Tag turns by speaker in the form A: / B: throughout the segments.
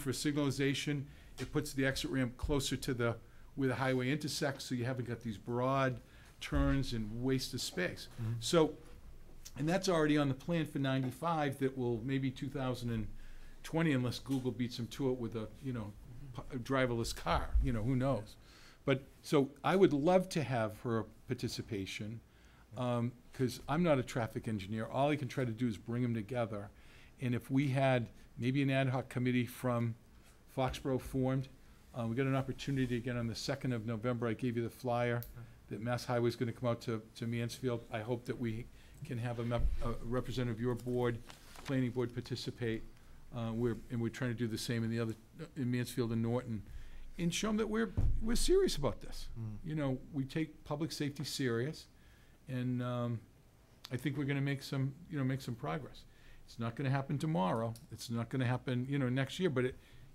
A: for signalization, it puts the exit ramp closer to the, where the highway intersects, so you haven't got these broad turns and waste of space. So, and that's already on the plan for ninety-five that will, maybe two thousand and twenty, unless Google beats them to it with a, you know, p- a driverless car, you know, who knows? But, so I would love to have her participation, um, cause I'm not a traffic engineer. All I can try to do is bring them together. And if we had maybe an ad hoc committee from Foxborough formed, uh, we got an opportunity again on the second of November. I gave you the flyer that Mass Highway's gonna come out to, to Mansfield. I hope that we can have a mem- a representative of your board, planning board participate. Uh, we're, and we're trying to do the same in the other, in Mansfield and Norton. And show them that we're, we're serious about this. You know, we take public safety serious and, um, I think we're gonna make some, you know, make some progress. It's not gonna happen tomorrow. It's not gonna happen, you know, next year, but it,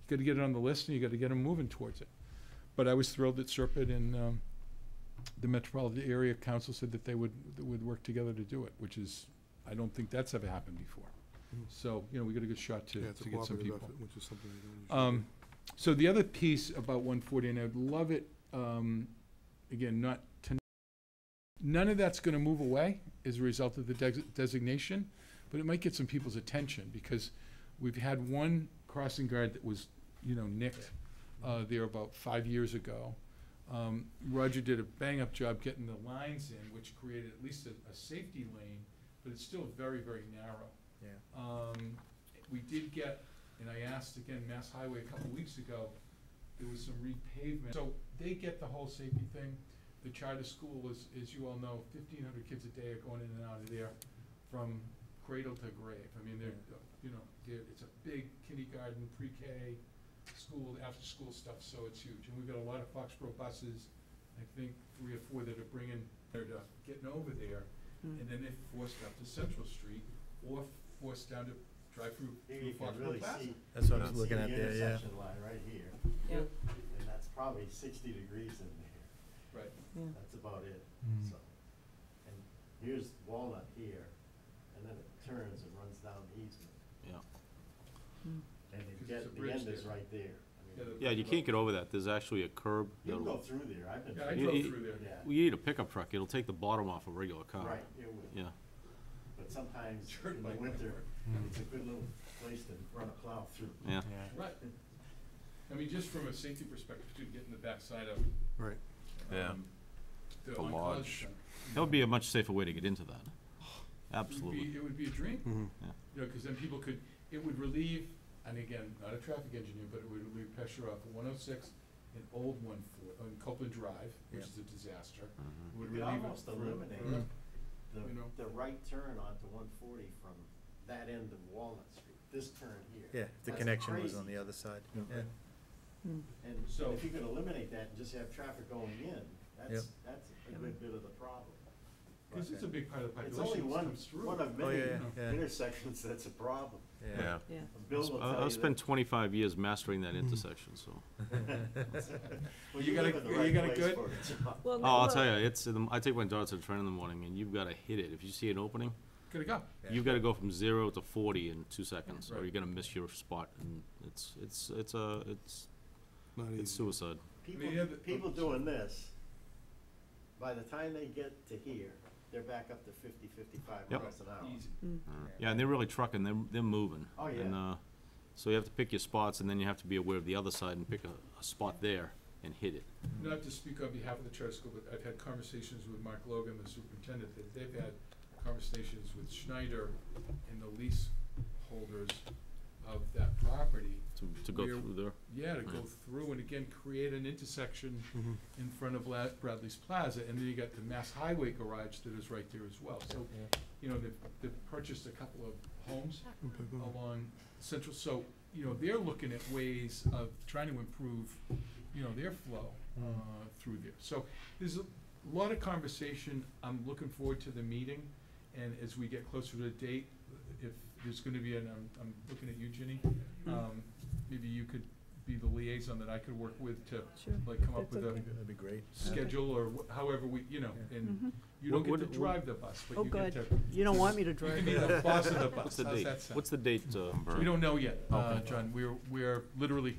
A: you gotta get it on the list and you gotta get them moving towards it. But I was thrilled that Serpent and, um, the Metropolitan Area Council said that they would, that would work together to do it, which is, I don't think that's ever happened before.
B: Mm.
A: So, you know, we got a good shot to,
B: Yeah, it's a
A: to get some
B: cooperative
A: people.
B: effort, which is something I don't usually do.
A: Um, so the other piece about one forty, and I'd love it, um, again, not to, none of that's gonna move away as a result of the des- designation, but it might get some people's attention, because we've had one crossing guard that was, you know, nicked, uh, there about five years ago. Um, Roger did a bang-up job getting the lines in, which created at least a, a safety lane, but it's still very, very narrow.
C: Yeah.
A: Um, we did get, and I asked again, Mass Highway a couple weeks ago, there was some repavement. So they get the whole safety thing. The charter school is, as you all know, fifteen hundred kids a day are going in and out of there from cradle to grave. I mean, they're, you know, they're, it's a big kindergarten, pre-K, school, after-school stuff, so it's huge. And we've got a lot of Foxborough buses, I think three or four that are bringing, they're uh, getting over there. And then they're forced up to Central Street or forced down to drive through,
D: Here
A: through
D: you can
A: Foxborough
D: really
A: Plaza.
D: see.
C: That's what I was
D: you can
C: looking at
D: see the
C: there, yeah.
D: intersection line right here,
E: Yeah,
D: and that's probably sixty degrees in there,
A: Right.
E: yeah.
D: that's about it,
C: Hmm.
B: Mm.
D: so. And here's Walnut here, and then it turns and runs down Eastman,
E: Mm.
D: and
A: Because
D: you
A: it's a
D: get, the
A: bridge
D: end is
A: there.
D: right there. I mean,
F: Yeah, you can't get over that, there's actually a curb.
D: You can go
F: that'll-
D: through there, I've been.
A: Yeah, I
F: You-
A: drove
F: you-
A: through there.
D: Yeah,
F: Well, You need a pickup truck, it'll take the bottom off a regular car.
D: right, it would,
F: Yeah,
D: but sometimes
A: Turn
D: in
A: my
D: the winter,
A: car.
D: it's a good little place to run a plow through.
F: yeah.
A: Right. I mean, just from a safety perspective, too, getting the backside of,
B: Right.
F: Yeah.
A: um, the
F: The
A: oncology
F: lodge.
A: center.
F: That would be a much safer way to get into that.
A: It would be-
F: Absolutely.
A: It would be a dream,
B: Mhm.
A: you know, because then people could, it would relieve, and again, not a traffic engineer, but it would relieve pressure off one oh six and old one four, on Copeland Drive, which
C: Yeah.
A: is a disaster.
F: Mhm.
A: It would
D: You could
A: relieve it
D: almost
A: for-
D: eliminate
A: for-
D: it. Mm. the,
A: You know?
D: the right turn onto one forty from that end of Walnut Street, this turn here.
C: Yeah, if the
D: That's
C: connection was
D: crazy.
C: on the other side,
B: Yeah.
C: yeah.
E: Mm.
D: And
A: So-
D: if you could eliminate that and just have traffic going in, that's, that's a good bit of the problem.
A: Because it's a big part of the
D: It's
A: population.
D: only
A: that
D: one,
A: comes through.
D: one of
C: Oh,
D: many
C: yeah,
A: no.
C: yeah,
D: intersections that's a problem.
C: yeah.
E: Yeah.
D: Bill will
F: I-
D: tell you
F: I've spent
D: that.
F: twenty-five years mastering that intersection, so.
D: Well,
A: You
D: you
A: got
D: live
A: a-
D: in the
A: you
D: right
A: got a
D: place
A: good-
D: for it, John.
E: Well,
F: Oh,
E: no,
F: I'll
E: look,
F: tell you, it's, in the- I take my daughter to the train in the morning and you've gotta hit it. If you see an opening,
A: Gotta go.
C: Yeah.
F: you've gotta go from zero to forty in two seconds, or
A: Right.
F: you're gonna miss your spot and it's, it's, it's a, it's,
B: Not
F: it's
B: easy.
F: suicide.
D: People,
A: you have the-
D: people doing this, by the time they get to here, they're back up to fifty, fifty-five
F: Yep.
D: miles an hour.
A: Easy.
E: mm.
F: Yeah, and they're really trucking, they're, they're moving.
D: Oh, yeah.
F: And, uh, so you have to pick your spots, and then you have to be aware of the other side and pick a, a spot there and hit it.
A: Not to speak on behalf of the charter school, but I've had conversations with Mark Logan, the superintendent, that they've had conversations with Schneider and the leaseholders of that property.
F: to, to go
A: We're-
F: through there.
A: Yeah, to go
F: Yeah.
A: through and again, create an intersection
B: Mhm.
A: in front of La- Bradley's Plaza, and then you got the Mass Highway garage that is right there as well. So, you know, they've, they've purchased a couple of homes
B: Okay, go on.
A: along Central, so, you know, they're looking at ways of trying to improve, you know, their flow, uh, through there. So, there's a lot of conversation, I'm looking forward to the meeting, and as we get closer to the date,
E: Mm-hmm.
A: if there's gonna be, an I'm, I'm looking at you, Ginny, um, maybe you could be the liaison that I could work with to,
E: Sure.
A: like, come up
E: That's
A: with a
E: okay.
B: That'd be great.
A: schedule or wh- however we, you know, and
E: Mhm.
A: you don't get
F: What-
A: to
F: what-
A: drive the bus, but
E: Oh,
A: you get
E: good.
A: to,
E: You don't want me to
A: you
E: drive.
A: can be the boss of the bus.
F: What's the
A: How's
F: date?
A: that sound?
F: What's the date, uh,
A: We don't know yet, uh,
F: Okay.
A: John. We're, we're literally